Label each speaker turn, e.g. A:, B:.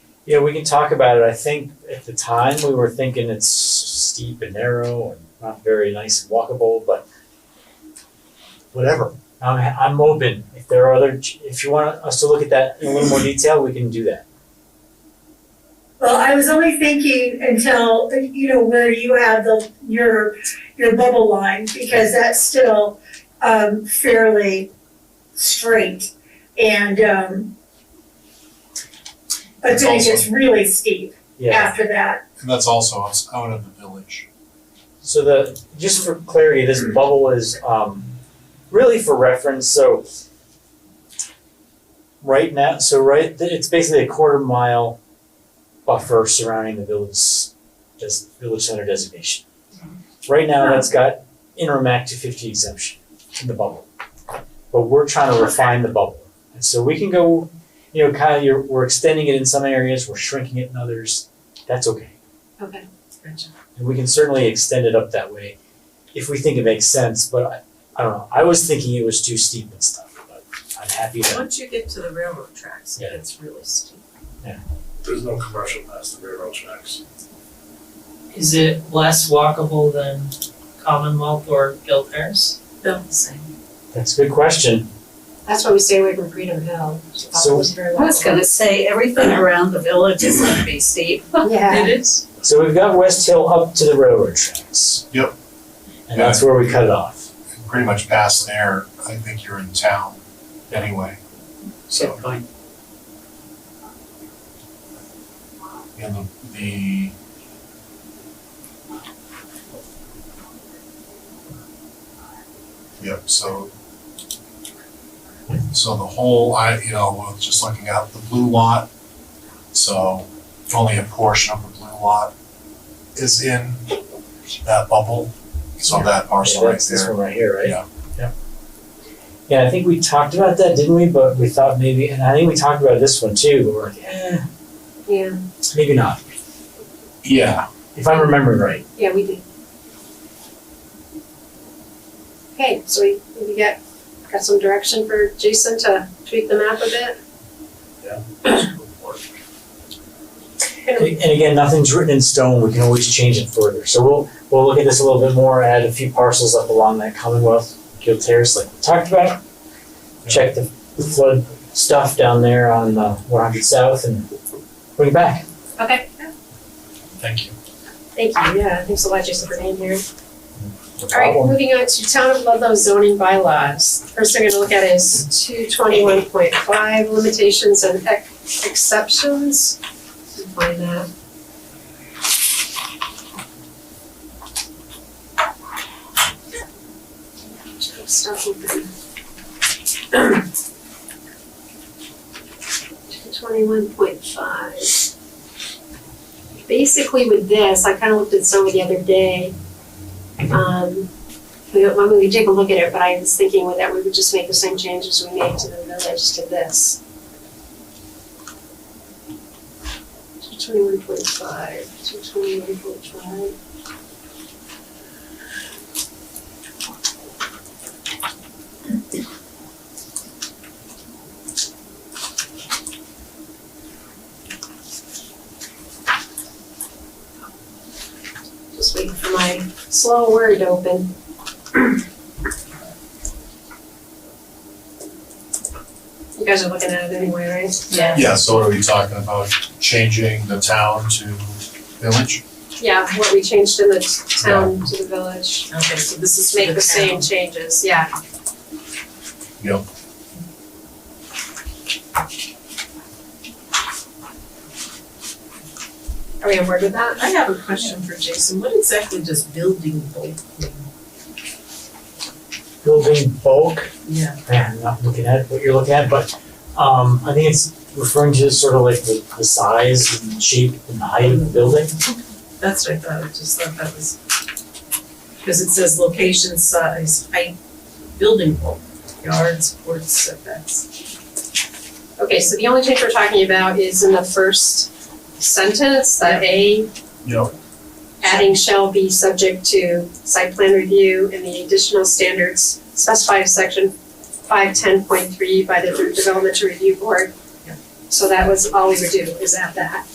A: Yeah, we can talk about it. I think at the time we were thinking it's steep and narrow and not very nice and walkable, but whatever. I'm, I'm open. If there are other, if you want us to look at that in a little more detail, we can do that.
B: Well, I was only thinking until, you know, where you have the, your, your bubble line, because that's still, um, fairly straight and, um, but then it
C: It's
B: gets really steep
A: Yeah.
B: after that.
C: And that's also us out of the village.
A: So the, just for clarity, this bubble is um, really for reference, so right now, so right, it's basically a quarter mile buffer surrounding the village, des village center designation. Right now, that's got interim Act two fifty exemption in the bubble. But we're trying to refine the bubble, and so we can go, you know, kind of, you're, we're extending it in some areas, we're shrinking it in others, that's okay.
D: Okay.
A: And we can certainly extend it up that way if we think it makes sense, but I, I don't know, I was thinking it was too steep and stuff, but I'm happy that,
D: Once you get to the railroad tracks, it
A: Yeah.
D: gets really steep.
E: There's no commercial past the railroad tracks.
F: Is it less walkable than Commonwealth or Guild Terrace?
D: Built the same.
A: that's a good question.
D: That's why we stay away from Freedom Hill.
A: So-
G: I was gonna say, everything around the village is gonna be steep.
B: Yeah.
D: It is.
A: So we've got West Hill up to the railroad tracks.
C: Yep.
A: And that's where we cut it off.
C: And Pretty much past there, I think you're in town anyway. So,
F: point.
C: you know, the, yep, so. So the whole, I, you know, we're just looking at the blue lot. So only a portion of the blue lot is in that bubble. So that parcel
A: Yeah,
C: right
A: that's this
C: there.
A: one right here, right?
C: Yeah.
A: Yeah. Yeah, I think we talked about that, didn't we? But we thought maybe, and I think we talked about this one too, but we're like, eh,
D: Yeah,
A: maybe not,
C: Yeah,
A: if I'm remembering right.
D: yeah, we did. Okay, so we, we got, got some direction for Jason to tweak the map a bit?
A: And and again, nothing's written in stone, we can always change it further, so we'll, we'll look at this a little bit more, add a few parcels up along that Commonwealth Guild Terrace like we talked about. Check the the flood stuff down there on uh one hundred south and bring it back.
D: Okay.
C: Thank you.
D: Thank you, yeah, thanks a lot, Jason, for being here.
A: No
D: All right,
A: problem.
D: moving on to town of Ludlow zoning bylaws. First thing we're gonna look at is two twenty-one point five limitations and ex- exceptions. Find that. Stuff open. Two twenty-one point five. Basically with this, I kinda looked at some the other day. Um, we, well, we could take a look at it, but I was thinking with that, we would just make the same changes we made to the village to this. Two twenty-one point five, two twenty-one point five. Just waiting for my slow word to open. You guys are looking at it anyway, right?
G: Yeah.
C: Yeah, so what are we talking about? Changing the town to village?
D: Yeah, what we changed in the t- town to the village.
F: Okay, so this is
D: Just
F: for
D: make the
F: town.
D: same changes, yeah.
C: Yep.
D: Are we on board with that?
F: I have a question for Jason. What exactly does building bulk mean?
A: Building bulk,
F: Yeah.
A: I'm not looking at what you're looking at, but um I think it's referring to sort of like the the size and shape and height of the building.
F: That's what I thought. I just thought that was, because it says location, size, height, building bulk, yards, ports, setbacks.
D: Okay, so the only change we're talking about is in the first sentence, that A,
C: Yep.
D: adding shall be subject to site plan review and the additional standards specified in section five ten point three by the Development to Review Board.
F: Yeah.
D: So that was all we would do, is add that.